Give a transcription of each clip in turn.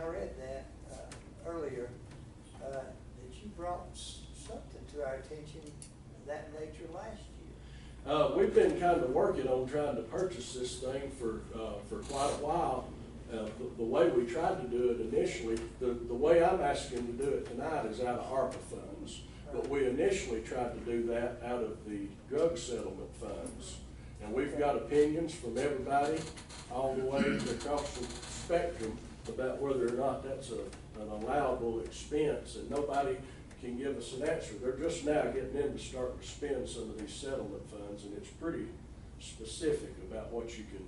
I read that uh, earlier, uh, that you brought s- something to our attention of that nature last year. Uh, we've been kind of working on trying to purchase this thing for, uh, for quite a while. Uh, the, the way we tried to do it initially, the, the way I'm asking to do it tonight is out of ARPA funds. But we initially tried to do that out of the drug settlement funds. And we've got opinions from everybody, all the way to across the spectrum, about whether or not that's a, an allowable expense. And nobody can give us an answer. They're just now getting in to start to spend some of these settlement funds, and it's pretty specific about what you can,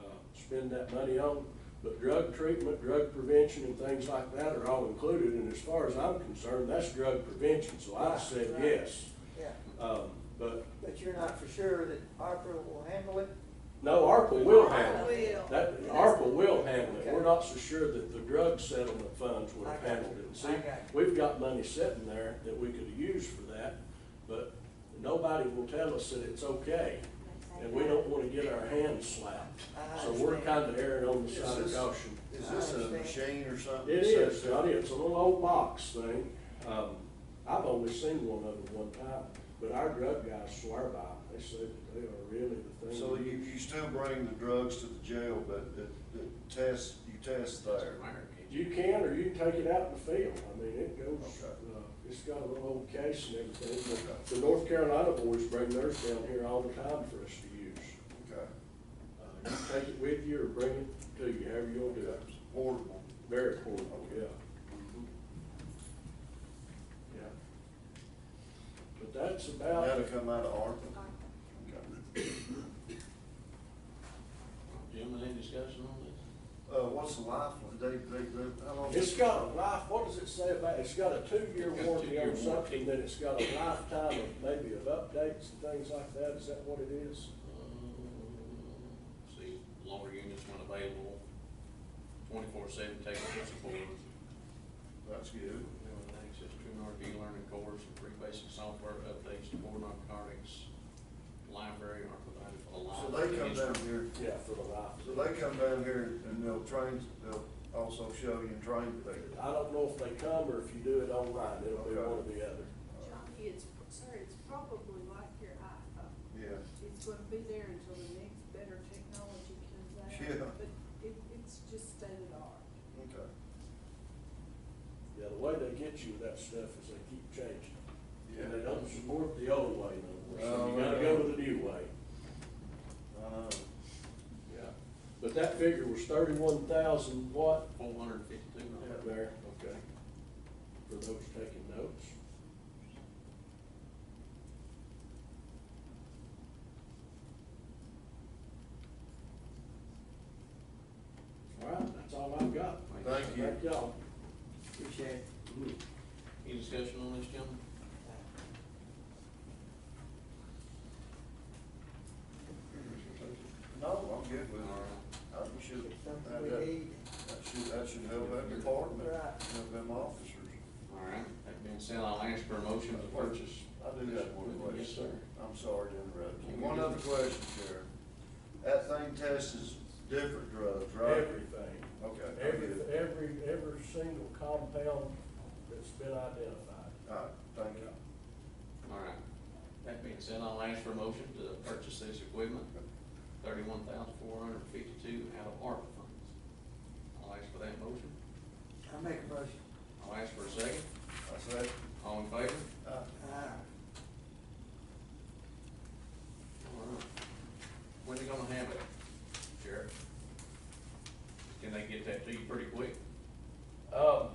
uh, spend that money on. But drug treatment, drug prevention, and things like that are all included, and as far as I'm concerned, that's drug prevention, so I said Right. yes. Yeah, Um, but, but you're not for sure that ARPA will handle it? no, ARPA will handle it. Will. That, ARPA will handle it, we're not so sure that the drug settlement funds would have handled it. See, I got you. we've got money sitting there that we could use for that, but nobody will tell us that it's okay. And we don't wanna get our hands slapped, I so we're understand. kinda erring on the Is side of this- caution. Is this I a understand. machine or something? It that is, sets up? Johnny, it's a little old box thing. Um, I've only seen one of them one time, but our drug guys swear by them. They say that they are really the thing. So you, you still bring the drugs to the jail, but the, the test, you test there. You can, or you can take it out in the field. I mean, it goes, Okay. uh, it's got a little old case and everything. Okay. but The North Carolina boys bring theirs down here all the time for us to use. Okay. Uh, You take it with you or bring it to you, however you want to do it. It's Portable. Very portable, yeah. Okay. Mm-hmm. Yeah. But that's about. That'll come out of ARPA. Okay. Gentlemen, any discussion on this? Uh, what's the life, of- they, they, they, how long? It's got a life, what does it say about, it's got a two-year It's got a warranty two-year on warranty. something, then it's got a lifetime of maybe of updates and things like that, is that what it is? Uh, See, loaner units when available, twenty-four seven technical support. That's good. Everyone access to an RV learning course, and free basic software updates to more narcotics. Library are provided for the So library. they come down here, Yeah, for the life. so they come down here and they'll train, they'll also show you and train people. I don't know if they come or if you do it online, it'll be Okay. one or the other. Johnny, it's, sir, it's probably like your iPhone. Yeah. It's gonna be there until the next better technology comes out. Yeah. But it, it's just state of the art. Okay. Yeah, the way they get you with that stuff is they keep changing. it. And Yeah. they don't support the old way no more, so Oh, you gotta yeah. go with the new way. I know. Yeah. But that figure was thirty-one thousand what? Four hundred fifty-two Out dollars. there, okay. For those taking notes. All right, that's all I've got. Thank you. Thank y'all. Appreciate it. Any discussion on this, gentlemen? No, I'm good with All right. it. I should, It's that, something we that need. should, that should help that department, Right. help them officers. All right, that being said, I'll ask for a motion to purchase. I do have one question. Yes, sir. I'm sorry to interrupt you. One other question, Sheriff. That thing tests different drugs, right? Everything. Okay. I'm Every, good. every, every single compound that's been identified. All right, thank you. All right. That being said, I'll ask for a motion to purchase this equipment, thirty-one thousand four hundred fifty-two out of ARPA funds. I'll ask for that motion. I make a motion. I'll ask for a second. I said, All in favor? uh, Aye. All right. When they gonna have it, Sheriff? Can they get that to you pretty quick? Um,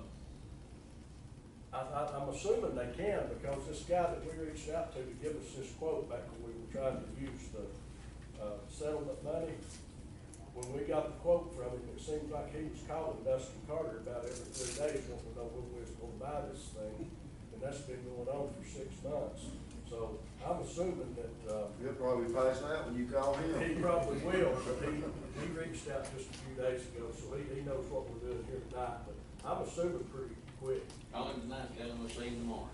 I, I, I'm assuming they can, because this guy that we reached out to to give us this quote back when we were trying to use the, uh, settlement money, when we got the quote from him, it seemed like he was calling Dustin Carter about every three days, wanting to know when we was gonna buy this thing, and that's been going on for six months. So I'm assuming that, uh, he'll probably pass out when you call he him. probably will, but he, he reached out just a few days ago, so he, he knows what we're doing here tonight, but I'm assuming pretty quick. Call him tonight, tell him we'll see him tomorrow.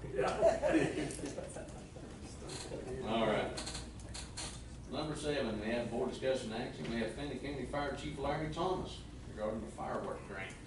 All right. Number seven, we have board discussion action, we have Fannin County Fire Chief Larry Thomas regarding the firework grant.